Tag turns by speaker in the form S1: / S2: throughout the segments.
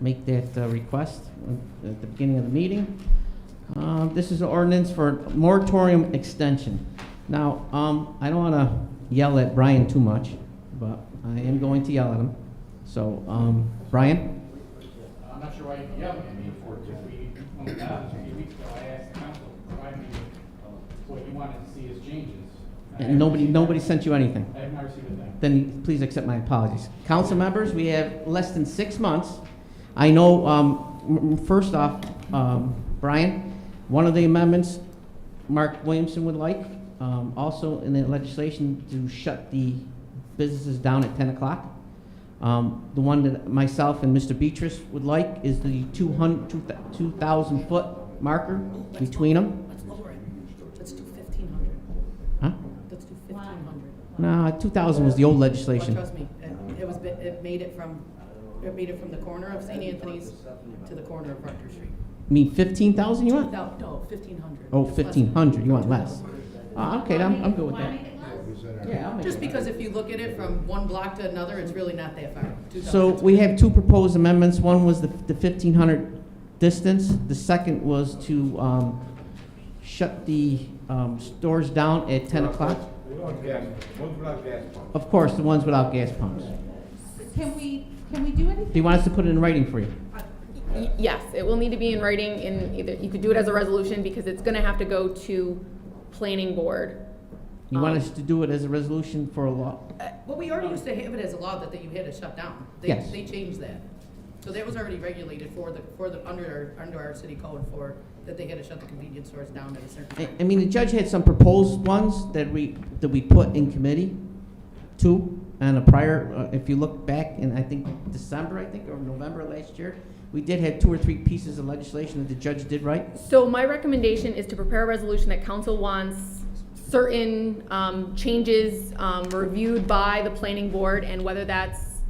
S1: make that uh, request at the beginning of the meeting. Uh, This is an ordinance for moratorium extension. Now, um, I don't want to yell at Brian too much, but I am going to yell at him. So, um, Brian?
S2: I'm not sure why you're yelling at me for it, if we, when we got it, three weeks ago, I asked the council, to provide me with uh, what you wanted to see as changes. I haven't
S1: And nobody,
S2: received
S1: nobody
S2: that.
S1: sent you anything?
S2: I have not received a thing.
S1: then please accept my apologies. Council members, we have less than six months. I know, um, m- m- first off, um, Brian, one of the amendments Mark Williamson would like, um, also in the legislation to shut the businesses down at ten o'clock. Um, the one that myself and Mr. Beatrice would like is the 200 two thousand foot marker between them,
S3: Let's lower it. Let's do fifteen hundred.
S1: huh?
S3: Let's do fifteen hundred.
S1: No, two thousand was the old legislation.
S3: Trust me, it- it was, bi- it made it from, it made it from the corner of St. Anthony's to the corner of Rutgers Street.
S1: mean fifteen thousand you want?
S3: No, no, fifteen hundred.
S1: Oh, fifteen hundred, you want less? Uh, okay, I'm, I'm good with
S4: Why
S1: that.
S4: make it less?
S1: Yeah, I'll make
S3: Just
S1: it.
S3: because if you look at it from one block to another, it's really not that far.
S1: So we have two proposed amendments, one was the, the fifteen hundred distance, the second was to, um, shut the, um, stores down at ten o'clock. Of course, the ones without gas pumps. Do
S4: Can we, can we do anything?
S1: you want us to put it in writing for you?
S5: Y- Yes, it will need to be in writing in either, you could do it as a resolution because it's gonna have to go to planning board.
S4: Oh.
S1: You want
S5: Um,
S1: us to do it as a resolution for a law?
S3: Well, we already used to have it as a law that, that you had to shut down. They-
S1: Yes.
S3: They changed that. So that was already regulated for the, for the, under our, under our city code for, that they had to shut the convenience stores down at a certain
S1: I,
S3: time.
S1: I mean, the judge had some proposed ones that we, that we put in committee, two, and a prior, uh, if you look back in, I think, December, I think, or November last year, we did have two or three pieces of legislation that the judge did right.
S5: So my recommendation is to prepare a resolution that council wants certain, um, changes, um, reviewed by the planning board and whether that's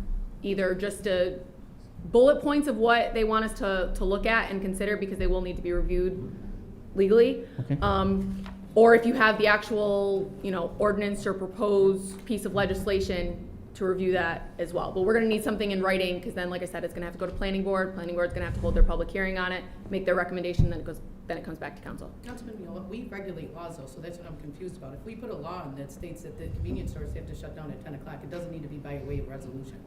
S5: either just a bullet points of what they want us to, to look at and consider because they will need to be reviewed legally.
S1: Okay.
S5: Um, or if you have the actual, you know, ordinance or proposed piece of legislation to review that as well. But we're gonna need something in writing, because then, like I said, it's gonna have to go to planning board, planning board's gonna have to hold their public hearing on it, make their recommendation, then it goes, then it comes back to council.
S3: Councilman Miola, we regulate laws though, so that's what I'm confused about. If we put a law in that states that the convenience stores have to shut down at ten o'clock, it doesn't need to be by way of resolution.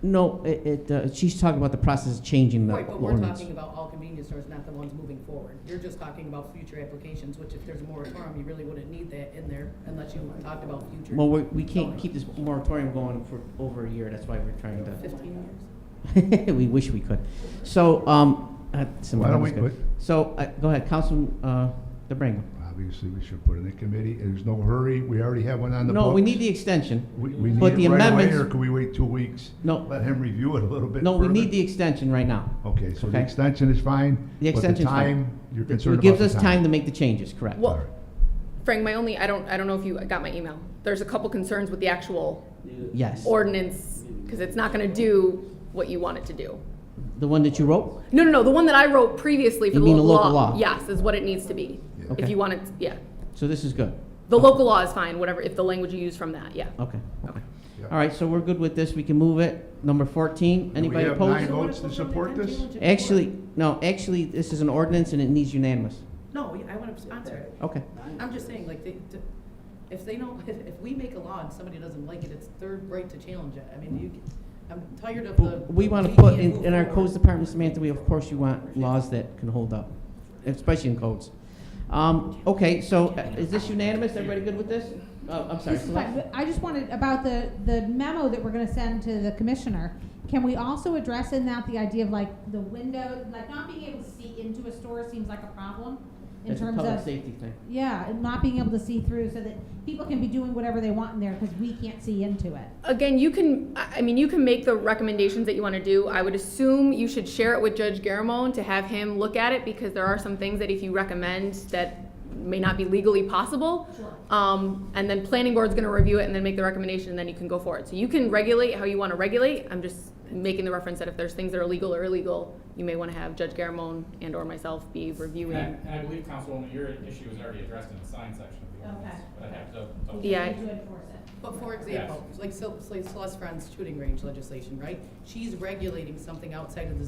S1: No, it, it, uh, she's talking about the process of changing the
S3: Right, but we're
S1: ordinance.
S3: talking about all convenience stores, not the ones moving forward. You're just talking about future applications, which if there's a moratorium, you really wouldn't need that in there unless you talked about future
S1: Well, we, we can't keep this moratorium going for over a year, that's why we're trying
S3: fifteen years.
S1: to, we wish we could. So, um, uh, some
S6: Why don't we
S1: numbers good.
S6: put-
S1: So, uh, go ahead, Councilman, uh, DeBrango.
S6: Obviously, we should put it in a committee. There's no hurry. We already have one on the book.
S1: No, we need the extension.
S6: We, we
S1: but
S6: need
S1: the
S6: it right away,
S1: amendments-
S6: or can we wait two weeks?
S1: No.
S6: Let him review it a little bit
S1: No, we
S6: further?
S1: need the extension right now.
S6: Okay, so the
S1: Okay.
S6: extension is fine?
S1: The extension's fine.
S6: But the time, you're
S1: It
S6: concerned about the time?
S1: gives us time to make the changes, correct?
S5: Well, Frank, my only, I don't, I don't know if you got my email. There's a couple concerns with the actual
S1: Yes.
S5: ordinance, because it's not gonna do what you want it to do.
S1: The one that you wrote?
S5: No, no, no, the one that I wrote previously for
S1: You
S5: the
S1: mean the
S5: local
S1: local
S5: law.
S1: law?
S5: Yes, is what it needs to be.
S6: Yeah.
S5: If
S1: Okay.
S5: you want it, yeah.
S1: So this is good?
S5: The local law is fine, whatever, if the language you use from that, yeah.
S1: Okay, okay.
S6: Yeah.
S1: All right, so we're good with this. We can move it. Number 14,
S6: Do we
S1: anybody
S6: have nine
S1: opposed?
S6: votes to support this?
S1: Actually, no, actually, this is an ordinance and it needs unanimous.
S3: No, we- I want to sponsor it.
S1: Okay.
S3: I'm just saying, like, they, to- if they don't, if, if we make a law and somebody doesn't like it, it's their right to challenge it. I mean, you, can- I'm tired of the.
S1: We want to put,
S3: can't
S1: in,
S3: move
S1: in our
S3: forward.
S1: codes department, Samantha, we, of course, you want laws that can hold up, especially in codes. Um, okay, so uh, is this unanimous? Everybody good with this? Oh, I'm sorry.
S4: This is fine, but I just wanted, about the, the memo that we're gonna send to the commissioner, can we also address in that the idea of like the window, like not being able to see into a store seems like a problem? In
S1: It's a
S4: terms
S1: public
S4: of,
S1: safety thing.
S4: yeah, and not being able to see through so that people can be doing whatever they want in there because we can't see into it.
S5: Again, you can, I I mean, you can make the recommendations that you want to do. I would assume you should share it with Judge Garamone to have him look at it because there are some things that if you recommend that may not be legally possible. Um, and then planning board's going to review it and then make the recommendation and then you can go forward. So you can regulate how you want to regulate. I'm just making the reference that if there's things that are legal or illegal, you may want to have Judge Garamone and or myself be
S2: And I,
S5: reviewing.
S2: and I believe Councilwoman, your issue is already addressed in the sign section of the ordinance,
S4: Okay.
S2: but I have to. double-
S5: Yeah, I-
S4: To enforce it.
S3: But for example, like Sil- like Celeste Friend's shooting range legislation, right? She's regulating something outside of the